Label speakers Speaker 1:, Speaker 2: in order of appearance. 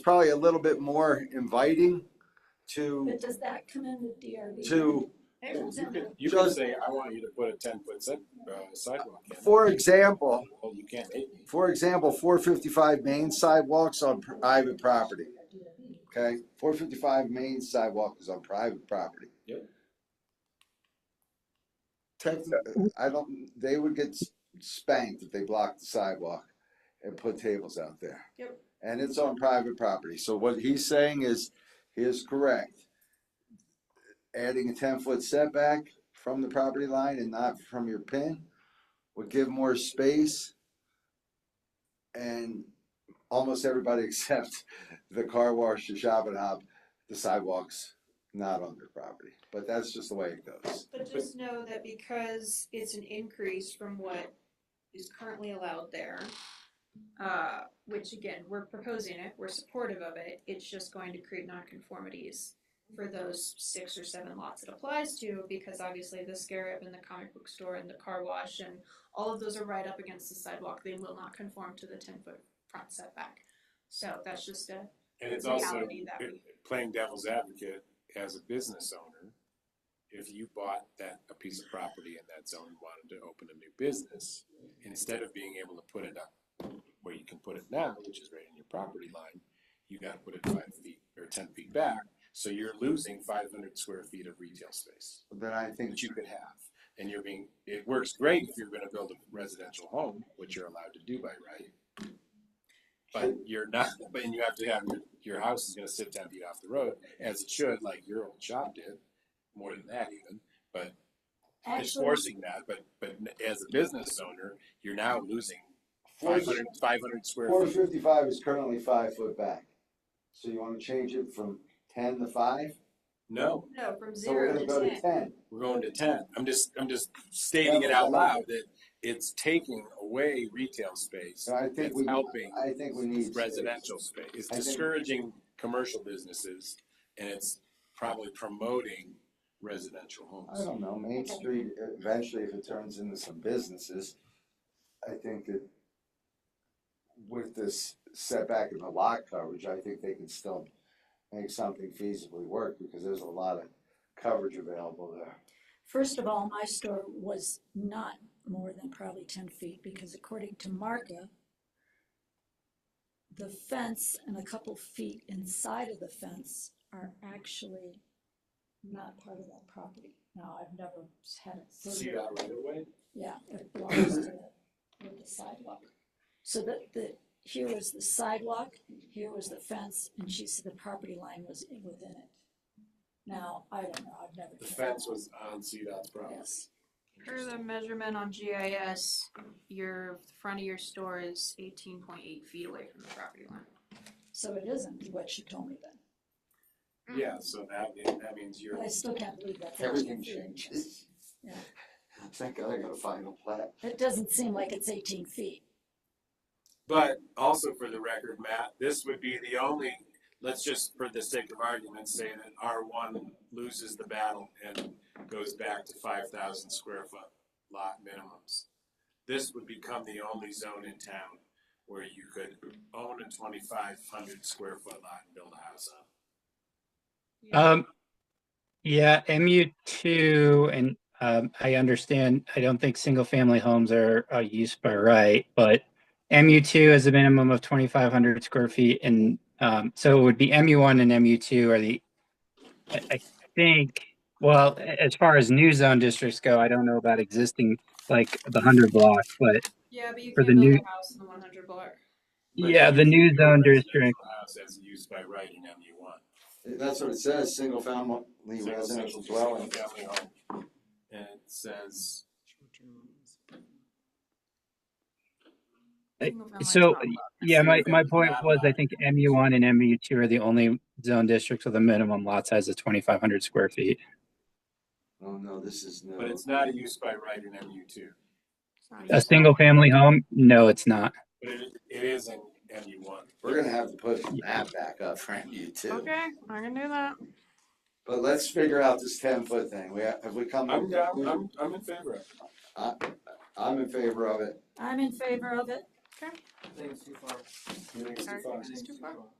Speaker 1: probably a little bit more inviting to,
Speaker 2: But does that come in with DRB?
Speaker 1: to
Speaker 3: You could, you
Speaker 1: Because-
Speaker 3: could say, I want you to put a ten foot set, uh, sidewalk in.
Speaker 1: For example,
Speaker 3: Well, you can't hate me.
Speaker 1: for example, four fifty-five main sidewalks on private property. Okay, four fifty-five main sidewalk is on private property.
Speaker 3: Yep.
Speaker 1: Technically, I don't, they would get spanked if they blocked the sidewalk and put tables out there.
Speaker 4: Yep.
Speaker 1: And it's on private property, so what he's saying is, he is correct. Adding a ten-foot setback from the property line and not from your pin would give more space. And almost everybody except the car wash, the shop and hop, the sidewalks, not on their property. But that's just the way it goes.
Speaker 4: But just know that because it's an increase from what is currently allowed there, uh, which again, we're proposing it, we're supportive of it, it's just going to create nonconformities for those six or seven lots it applies to, because obviously the scarab and the comic book store and the car wash and all of those are right up against the sidewalk, they will not conform to the ten foot front setback. So that's just a
Speaker 3: And it's also
Speaker 4: reality that we,
Speaker 3: playing devil's advocate as a business owner. If you bought that, a piece of property in that zone and wanted to open a new business, instead of being able to put it up where you can put it now, which is right in your property line, you gotta put it five feet or ten feet back. So you're losing five hundred square feet of retail space.
Speaker 1: Then I think
Speaker 3: that you could have. And you're being, it works great if you're gonna build a residential home, which you're allowed to do by right. But you're not, but you have to have, your, your house is gonna sit ten feet off the road, as it should, like your old shop did, more than that even. It's
Speaker 2: Actually,
Speaker 3: forcing that, but, but as a business owner, you're now losing five hundred, five hundred square
Speaker 1: Four
Speaker 3: feet.
Speaker 1: fifty-five is currently five foot back. So you wanna change it from ten to five?
Speaker 3: No,
Speaker 4: no, from
Speaker 1: So we're
Speaker 4: zero
Speaker 1: gonna
Speaker 4: to
Speaker 1: go
Speaker 4: ten.
Speaker 1: to ten.
Speaker 3: we're going to ten. I'm just, I'm just stating it out loud that it's taking away retail space.
Speaker 1: So I think
Speaker 3: It's
Speaker 1: we,
Speaker 3: helping.
Speaker 1: I think we need.
Speaker 3: residential space. It's
Speaker 1: I think-
Speaker 3: discouraging commercial businesses and it's probably promoting residential
Speaker 1: I
Speaker 3: homes.
Speaker 1: don't know, Main Street, eventually if it turns into some businesses, I think that with this setback in the lot coverage, I think they can still make something feasibly work because there's a lot of coverage available there.
Speaker 2: first of all, my store was not more than probably ten feet, because according to Marka, the fence and a couple feet inside of the fence are actually not part of that property. Now, I've never had it.
Speaker 3: See that right away?
Speaker 2: Yeah, it belongs to the, with the sidewalk. So the, the, here was the sidewalk, here was the fence, and she said the property line was in- within it. Now, I don't know, I've never.
Speaker 3: The fence was on CDOT's property.
Speaker 2: Yes,
Speaker 4: Per the measurement on GIS, your, the front of your store is eighteen point eight feet away from the property line.
Speaker 2: so it isn't what she told me then,
Speaker 4: Mm.
Speaker 3: Yeah, so that, that means you're,
Speaker 2: but I still can't believe that.
Speaker 1: Everything changes.
Speaker 2: Yeah.
Speaker 1: Thank God I got a final plat.
Speaker 2: It doesn't seem like it's eighteen feet.
Speaker 3: but also for the record, Matt, this would be the only, let's just for the sake of argument, say that R one loses the battle and goes back to five thousand square foot lot minimums. This would become the only zone in town where you could own a twenty-five hundred square foot lot and build a house on.
Speaker 5: Um, yeah, MU two, and um, I understand, I don't think single family homes are uh, used by right, but MU two is a minimum of twenty five hundred square feet, and um, so it would be MU one and MU two are the, I, I think, well, a- as far as new zone districts go, I don't know about existing like the hundred block, but
Speaker 4: Yeah, but you
Speaker 5: For
Speaker 4: can't
Speaker 5: the
Speaker 4: build
Speaker 5: new-
Speaker 4: a house in the one hundred block.
Speaker 3: But
Speaker 5: yeah,
Speaker 3: you
Speaker 5: the
Speaker 3: can
Speaker 5: new
Speaker 3: build a
Speaker 5: zone
Speaker 3: residential
Speaker 5: district.
Speaker 3: House as used by right in MU one.
Speaker 1: That's what it says, single family residential dwelling.
Speaker 3: Single-family home. And it says,
Speaker 5: Uh,
Speaker 4: Single-family
Speaker 5: so,
Speaker 4: dwelling.
Speaker 5: Yeah, my,
Speaker 3: Single
Speaker 5: my
Speaker 3: family
Speaker 5: point
Speaker 3: not
Speaker 5: was I
Speaker 3: allowed.
Speaker 5: think MU one and MU two are the only zone districts with a minimum lot size of twenty five hundred square feet.
Speaker 1: Oh no, this is no.
Speaker 3: but it's not a use by right in MU two.
Speaker 4: It's not
Speaker 5: A
Speaker 4: used.
Speaker 5: single family home? No, it's not.
Speaker 3: But it, it is in MU one.
Speaker 1: We're gonna have to put that back up for you too.
Speaker 4: Okay, I can do that.
Speaker 1: But let's figure out this ten foot thing. We, have we come?
Speaker 3: I'm, I'm, I'm- I'm in favor of it.
Speaker 1: I'm in favor of it.
Speaker 2: I'm in favor of it.
Speaker 3: You think it's too far?
Speaker 4: Sorry, it's too far.